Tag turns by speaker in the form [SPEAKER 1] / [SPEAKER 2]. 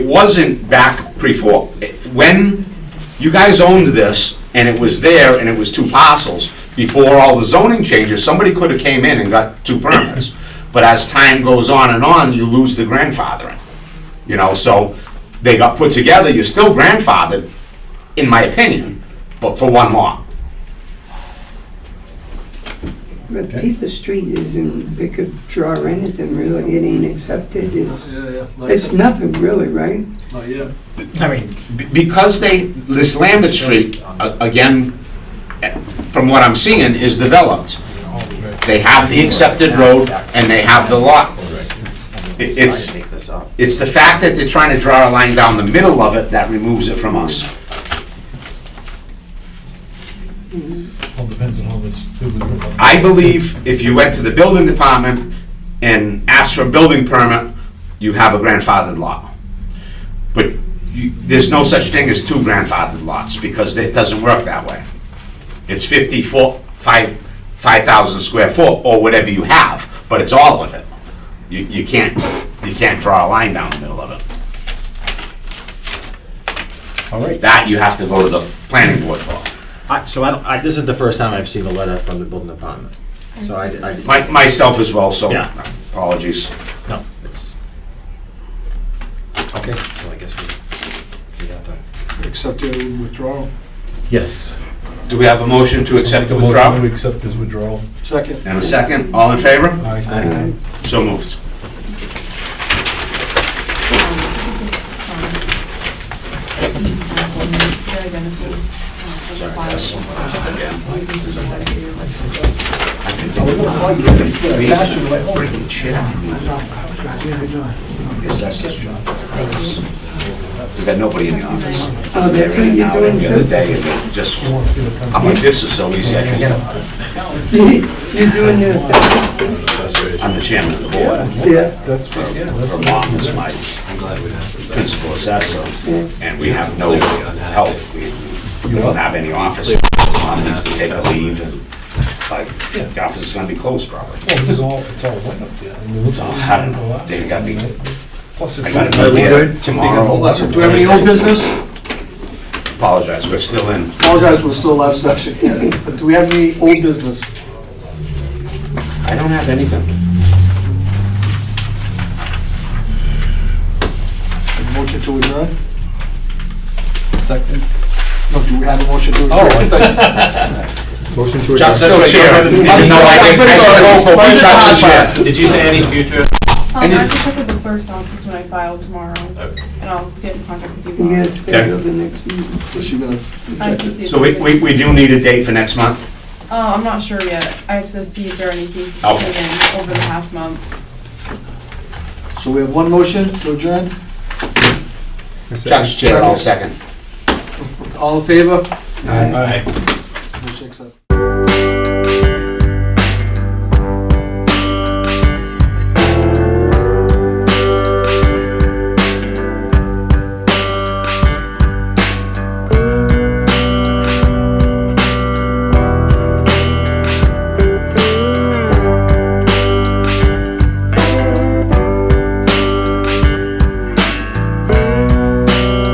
[SPEAKER 1] It wasn't back pre-fall. When you guys owned this, and it was there, and it was two parcels, before all the zoning changes, somebody could have came in and got two permits. But as time goes on and on, you lose the grandfathering, you know, so they got put together, you're still grandfathered, in my opinion, but for one lot.
[SPEAKER 2] But Peepers Street isn't, they could draw anything really, it ain't accepted, it's,
[SPEAKER 3] Yeah, yeah, not
[SPEAKER 2] it's
[SPEAKER 3] yet,
[SPEAKER 2] nothing really, right?
[SPEAKER 3] not yet.
[SPEAKER 4] I mean,
[SPEAKER 1] Be- Because they, this Lambert Street, a- again, eh, from what I'm seeing, is developed. They have the accepted road and they have the lot. It- It's, it's the fact that they're trying to draw a line down the middle of it that removes it from us.
[SPEAKER 5] All depends on how this, who we look on.
[SPEAKER 1] I believe if you went to the building department and asked for a building permit, you have a grandfathered lot. But you, there's no such thing as two grandfathered lots, because it doesn't work that way. It's fifty foot, five, five thousand square foot, or whatever you have, but it's all of it. You, you can't, you can't draw a line down the middle of it.
[SPEAKER 4] all right.
[SPEAKER 1] That you have to go to the planning board for.
[SPEAKER 6] I, so I don't, I, this is the first time I've seen a letter from the building department. So I, I,
[SPEAKER 1] My, myself as well, so
[SPEAKER 6] Yeah.
[SPEAKER 1] apologies.
[SPEAKER 6] no, it's. Okay, so I guess we, we got that.
[SPEAKER 3] Accept your withdrawal.
[SPEAKER 6] Yes.
[SPEAKER 1] Do we have a motion to accept the
[SPEAKER 5] Make a motion
[SPEAKER 1] withdrawal?
[SPEAKER 5] to accept this withdrawal.
[SPEAKER 3] Second.
[SPEAKER 1] And a second, all in favor?
[SPEAKER 5] Aye.
[SPEAKER 2] Uh,
[SPEAKER 1] So moved. We've got nobody in the office.
[SPEAKER 2] Oh, that's what you're doing
[SPEAKER 1] The other
[SPEAKER 2] too?
[SPEAKER 1] day, and it just, I'm like, this is so easy, I forget it.
[SPEAKER 2] You're doing this,
[SPEAKER 1] I'm the chairman of the board.
[SPEAKER 2] yeah,
[SPEAKER 5] That's right, yeah, that's
[SPEAKER 1] Her
[SPEAKER 5] right.
[SPEAKER 1] mom is my principal assessor, and we have no help. We don't have any office. Mom needs to take a leave, and like, the office is gonna be closed probably.
[SPEAKER 5] Well, this is all, it's all wet up there. I mean, this is-
[SPEAKER 1] I don't know. They got me-
[SPEAKER 5] Plus
[SPEAKER 1] I got
[SPEAKER 5] it's.
[SPEAKER 1] another
[SPEAKER 3] good.
[SPEAKER 1] idea tomorrow.
[SPEAKER 3] Do we have any old business?
[SPEAKER 1] Apologize, we're still in.
[SPEAKER 3] Apologize, we're still live session. But do we have any old business?
[SPEAKER 1] I don't have anything.
[SPEAKER 3] A Motion to adjourn?
[SPEAKER 5] Second.
[SPEAKER 3] No, do we have a motion to adjourn?
[SPEAKER 5] Oh, I
[SPEAKER 7] Motion to adjourn.
[SPEAKER 1] Chuck's still chair. No, I think, I think, we trust the chair.
[SPEAKER 6] Did you say any future?
[SPEAKER 8] Um, I have to check with the clerk's office when I file tomorrow,
[SPEAKER 1] Uh,
[SPEAKER 8] and I'll get in contact with you.
[SPEAKER 2] you
[SPEAKER 8] all.
[SPEAKER 2] gotta schedule the next meeting.
[SPEAKER 3] Is she gonna?
[SPEAKER 8] I have to see. if
[SPEAKER 1] So we,
[SPEAKER 8] there's
[SPEAKER 1] we,
[SPEAKER 8] any-
[SPEAKER 1] we do need a date for next month?
[SPEAKER 8] Uh, I'm not sure yet. I have to see if there are any cases coming
[SPEAKER 1] Okay.
[SPEAKER 8] in over the past month.
[SPEAKER 3] So we have one motion to adjourn?
[SPEAKER 1] Chuck's chair, I'll second.
[SPEAKER 3] All in favor?
[SPEAKER 5] Aye.
[SPEAKER 3] Motion accepted.